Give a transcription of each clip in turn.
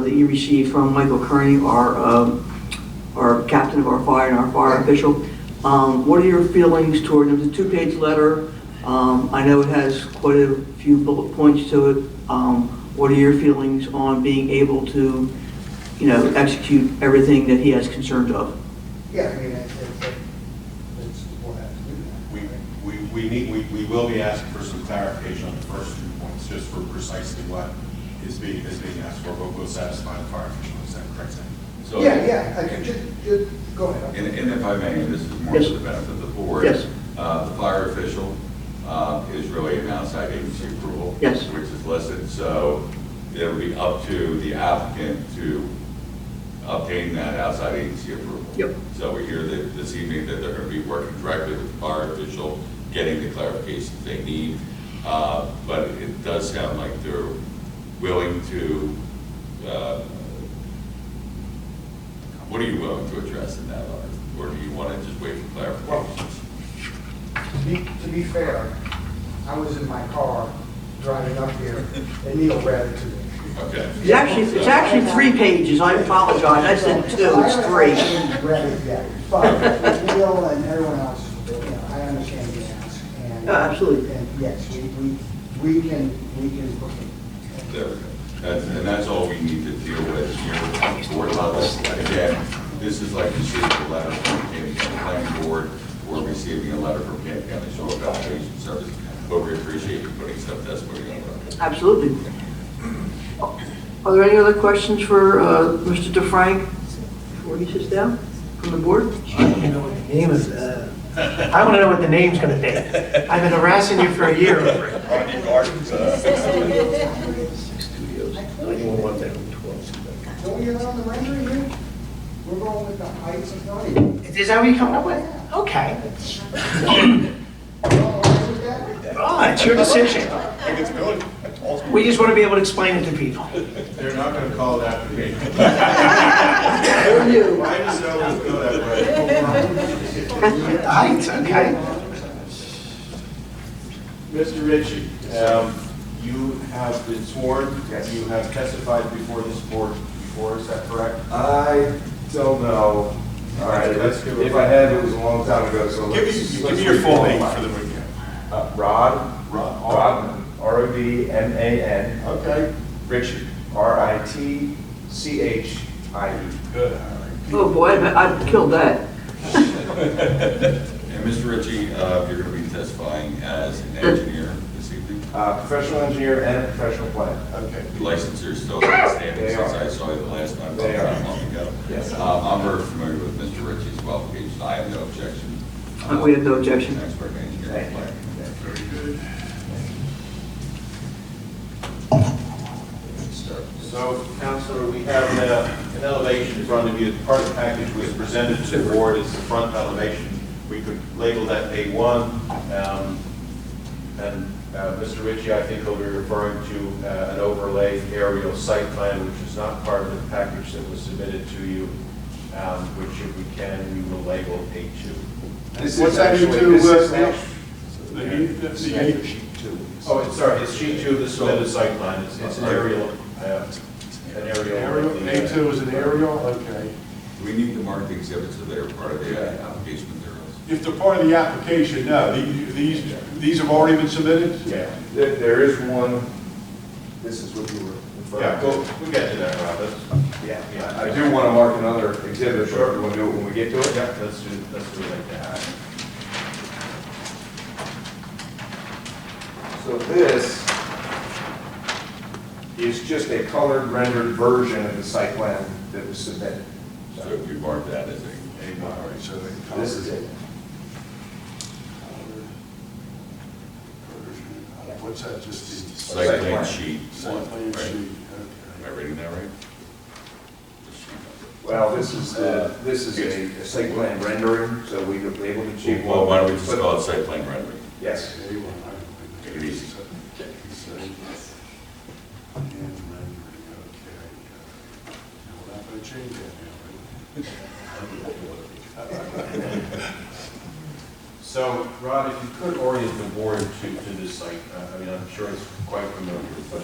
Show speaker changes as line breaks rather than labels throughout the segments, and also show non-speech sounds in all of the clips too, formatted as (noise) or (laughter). that you received from Michael Kearney, our, um, our captain of our fire and our fire official. Um, What are your feelings toward, it was a two-page letter. Um, I know it has quite a few bullet points to it. Um, What are your feelings on being able to, you know, execute everything that he has concerns of?
Yeah, I mean, it's, it's, it's, we'll have to do that.
We, we, we need, we, we will be asking for some clarification on the first two points, just for precisely what is being, is being asked for, what will satisfy the fire official, is that correct, Sam?
So-
Yeah, yeah, I could, just, just, go ahead.
And, and if I may, this is more
Yes.
to the benefit of the board.
Yes.
Uh, the fire official, uh, is really an outside agency approval.
Yes.
Which is listed, so it would be up to the applicant to obtain that outside agency approval.
Yep.
So we hear that this evening that they're gonna be working directly with the fire official, getting the clarifications they need. Uh, but it does sound like they're willing to, uh, what are you willing to address in that letter? Or do you want to just wait for clarifications?
To be, to be fair, I was in my car driving up here, and Neil read it to me.
Okay.
It's actually, it's actually three pages, I apologize, I said two, it's
I
three.
haven't read it yet, but with Neil and everyone else, you know, I understand the ask, and.
Oh, absolutely.
And yes, we, we, we can, we can book it.
There we go. That's- And that's all we need to deal with here at the board level. Again, this is like receiving a letter from the Camden County Planning Board or receiving a letter from Camden County Soil Evaluation Service, but we appreciate you putting stuff that's what you're going to.
Absolutely. Are there any other questions for uh, Mr. DeFrank before he sits down from the board?
I want to know what the name is, uh, I want to know what the name's going to be. I've been harassing you for a year over it.
On your guard.
uh,
Studios, 911 down 12.
So when you're on the rendering here, we're going with the heights of Nottingham.
Is that what you're coming up with? Okay.
You all right with that?
Oh, it's your decision.
If (laughs) it's good, that's awesome.
We just want to be able to explain it to people.
They're not gonna call it after me.
Or you?
I just always go that way.
The heights, okay.
Mr. Ritchie, um, you have been sworn. You have testified before this board before, is that correct?
I don't know. All right, if if I had, it was a long time ago, so
Give
let's.
me, give
let's
me your full name
requalify.
for the record.
Uh, Rod.
Rod.
Rodman. R O D M A N.
Okay.
Richard. R I T C H I E.
Good, all right.
Oh, boy, I I killed that.
And Mr. Ritchie, uh, you're going to be testifying as an engineer this evening.
Uh, Professional engineer and a professional planner.
Okay.
The Licenses are still outstanding
They
since
are.
I saw you the last time,
They are.
not long ago.
Yes.
Um, I'm very familiar with Mr. Ritchie's qualifications, I have no objection.
Uh, we have no objection.
An Expert in engineering.
Thank you.
Very good. Let's start.
So, Counselor, we have uh, an elevation in front of you. Part of the package was presented to the board is the front elevation. We could label that A1. um, And uh, Mr. Ritchie, I think, will be referring to uh, an overlay aerial site plan, which is not part of the package that was submitted to you, um, which if we can, we will label A2.
This
What's
is
that
actually-
into,
this
uh,
is
Neil?
actually-
The heat, that's the heat.
Oh, it's- sorry, it's sheet two of the submitted site plan. It's it's an aerial, uh, an aerial.
Aerial, A2 is an aerial, okay.
We need to mark the exhibits that are part of the application materials.
If they're part of the application, no, the- these, these have already been submitted?
Yeah.
There there is one, this is what you were. referring
uh, Yeah,
to.
go, we get to that, Rob. That's-
Yeah,
Yeah.
I do want to mark another exhibit, sure, we'll do it when we get to it.
Yeah, let's do, let's do it like that.
So this is just a colored rendered version of the site plan that was submitted.
So if you mark that as a,
All right, so they.
This is it.
What's that, just the?
site
Site
plan
plan.
sheet one,
Site plan
right?
sheet,
Am I
okay.
reading that right?
Well, this is the, this is a- a site plan rendering, so we were able to achieve.
Well, why don't we just call it site plan rendering?
Yes.
A1, all right.
Take it easy.
Site plan. And rendering, okay. Now, We're not going to change
(laughs)
that now, right?
So, Rod, if you could orient the board to, to this site, uh, I I mean, I'm sure it's quite familiar, but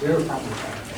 There are problems.